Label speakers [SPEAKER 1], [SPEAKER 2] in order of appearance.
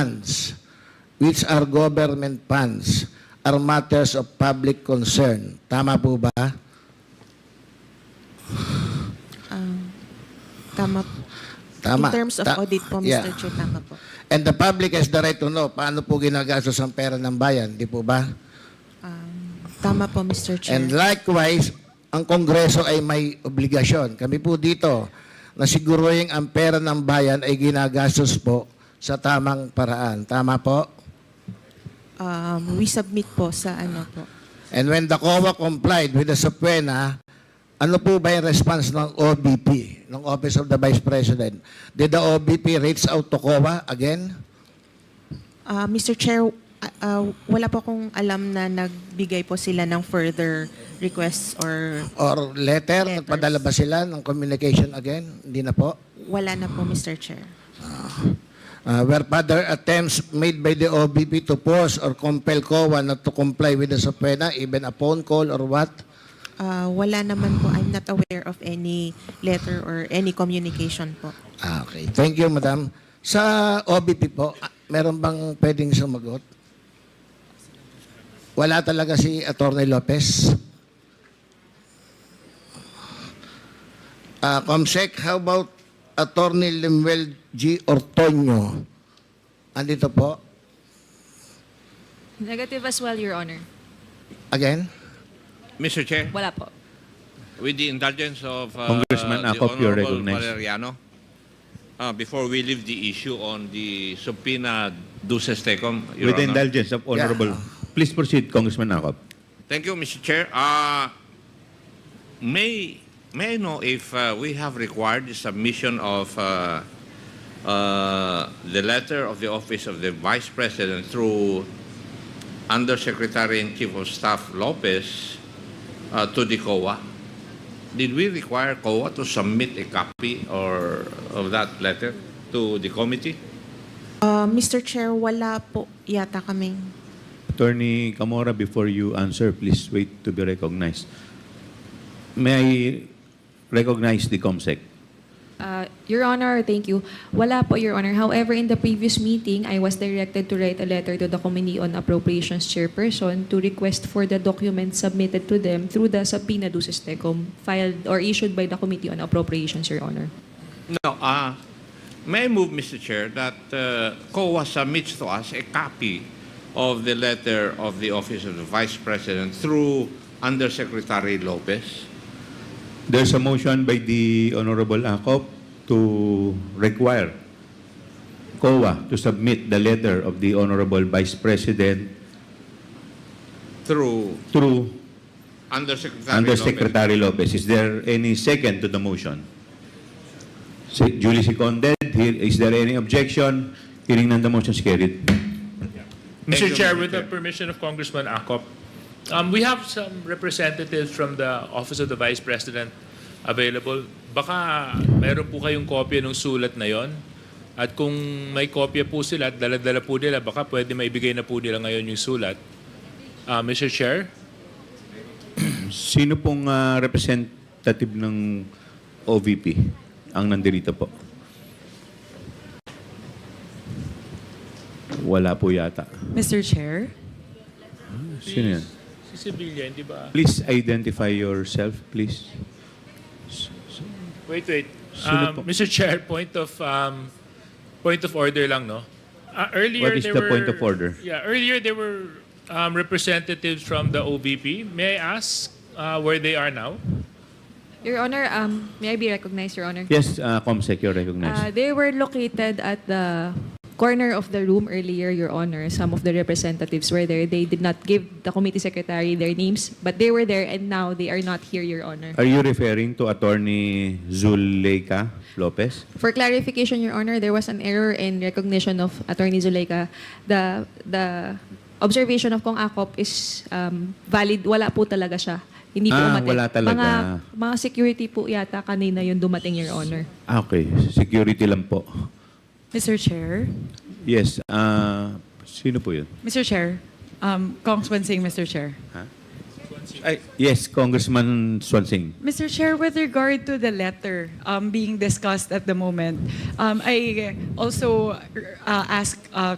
[SPEAKER 1] funds which are government funds are matters of public concern. Tama po ba?
[SPEAKER 2] Um, Tama.
[SPEAKER 1] Tama.
[SPEAKER 2] In terms of
[SPEAKER 1] Ta-
[SPEAKER 2] audit po, Mr.
[SPEAKER 1] Yeah.
[SPEAKER 2] Chair, tama po.
[SPEAKER 1] And the public has the right to know paano po ginagastos ang pera ng bayan, di po ba?
[SPEAKER 2] Um, tama po, Mr. Chair.
[SPEAKER 1] And likewise, ang Kongreso ay may obligasyon. Kami po dito na siguruhin ang pera ng bayan ay ginagastos po sa tamang paraan. Tama po?
[SPEAKER 2] um, we submit po sa ano po.
[SPEAKER 1] And when the COA complied with the subpoena, ano po ba yung response ng OBP, ng Office of the Vice President? Did the OBP reach out to COA again?
[SPEAKER 2] Uh, Mr. Chair, uh, uh, wala po akong alam na nagbigay po sila ng further requests or
[SPEAKER 1] Or letter?
[SPEAKER 2] Letters.
[SPEAKER 1] Nagpadala ba sila ng communication again? Hindi na po?
[SPEAKER 2] wala na po, Mr. Chair.
[SPEAKER 1] Uh, were other attempts made by the OBP to force or compel COA not to comply with the subpoena, even a phone call or what?
[SPEAKER 2] Uh, wala naman po. I'm not aware of any letter or any communication po.
[SPEAKER 1] Ah, okay. Thank you, madam. Sa OBP po, ah, meron bang pwedeng sumagot? Wala talaga si Attorney Lopez. Ah, Comsec, how about Attorney Lemuel G. Ortoño? Andito po.
[SPEAKER 3] Negative as well, Your Honor.
[SPEAKER 1] Again?
[SPEAKER 4] Mr. Chair,
[SPEAKER 3] Wala po.
[SPEAKER 4] with the indulgence of uh,
[SPEAKER 5] Congressman
[SPEAKER 4] the
[SPEAKER 5] Acop, you're
[SPEAKER 4] Honorable
[SPEAKER 5] recognized.
[SPEAKER 4] Valeriano, uh, before we leave the issue on the subpoena duces tecum, Your
[SPEAKER 5] With the
[SPEAKER 4] Honor.
[SPEAKER 5] indulgence of Honorable. Please proceed, Congressman Acop.
[SPEAKER 4] Thank you, Mr. Chair. Uh, may may I know if uh, we have required the submission of uh, uh, the letter of the office of the Vice President through Undersecretary and Chief of Staff Lopez uh, to the COA? Did we require COA to submit a copy or of that letter to the committee?
[SPEAKER 2] Uh, Mr. Chair, wala po yata kaming
[SPEAKER 5] Attorney Camora, before you answer, please wait to be recognized. May I recognize the COMSEC?
[SPEAKER 3] Uh, Your Honor, thank you. Wala po, Your Honor. However, in the previous meeting, I was directed to write a letter to the Committee on Appropriations Chairperson to request for the documents submitted to them through the subpoena duces tecum filed or issued by the Committee on Appropriations, Your Honor.
[SPEAKER 4] No, uh, may I move, Mr. Chair, that uh, COA submits to us a copy of the letter of the Office of the Vice President through Undersecretary Lopez.
[SPEAKER 5] There's a motion by the Honorable Acop to require COA to submit the letter of the Honorable Vice President
[SPEAKER 4] Through
[SPEAKER 5] through
[SPEAKER 4] Undersecretary, Lopez.
[SPEAKER 5] Undersecretary Lopez. Is there any second to the motion? Si- Duly seconded. Here- Is there any objection? Hearing none, the motion is carried.
[SPEAKER 4] Thank
[SPEAKER 6] Mr.
[SPEAKER 4] you,
[SPEAKER 6] Chair,
[SPEAKER 4] Mr.
[SPEAKER 6] with the
[SPEAKER 4] Chair.
[SPEAKER 6] permission of Congressman Acop, um, we have some representatives from the Office of the Vice President available. Baka meron po kayong kopya ng sulat na yon. At kung may kopya po sila at daladala po nila, baka pwede maibigay na po nila ngayon yung sulat. Uh, Mr. Chair,
[SPEAKER 5] Sino pong ah, representative ng OVP ang nandirito po? Wala po yata.
[SPEAKER 7] Mr. Chair,
[SPEAKER 5] Sino yan?
[SPEAKER 6] si Sibilya, hindi ba?
[SPEAKER 5] Please identify yourself, please.
[SPEAKER 6] Wait, wait.
[SPEAKER 5] Sino po?
[SPEAKER 6] Um, Mr. Chair, point of um, point of order lang, no? Uh, earlier
[SPEAKER 5] What is
[SPEAKER 6] there
[SPEAKER 5] the
[SPEAKER 6] were,
[SPEAKER 5] point of order?
[SPEAKER 6] Yeah, earlier there were um, representatives from the OVP. May I ask uh, where they are now?
[SPEAKER 3] Your Honor, um, may I be recognized, Your Honor?
[SPEAKER 5] Yes, uh, Comsec, you're
[SPEAKER 3] Uh,
[SPEAKER 5] recognized.
[SPEAKER 3] they were located at the corner of the room earlier, Your Honor. Some of the representatives were there. They did not give the committee secretary their names, but they were there and now they are not here, Your Honor.
[SPEAKER 5] Are you referring to Attorney Zuleika Lopez?
[SPEAKER 3] For clarification, Your Honor, there was an error in recognition of Attorney Zuleika. The, the observation of Kong Akop is um, valid. Wala po talaga siya. Hindi po
[SPEAKER 5] Ah,
[SPEAKER 3] umatid.
[SPEAKER 5] wala talaga.
[SPEAKER 3] Mga, mga security po yata kanina yung dumating, Your Honor.
[SPEAKER 5] Ah, okay. Security lang po.
[SPEAKER 7] Mr. Chair,
[SPEAKER 5] Yes. ah, sino po yun?
[SPEAKER 7] Mr. Chair, um, Congressman Singh, Mr. Chair.
[SPEAKER 5] Ay, yes, Congressman Swansing.
[SPEAKER 7] Mr. Chair, with regard to the letter um, being discussed at the moment, um, I also uh, ask uh,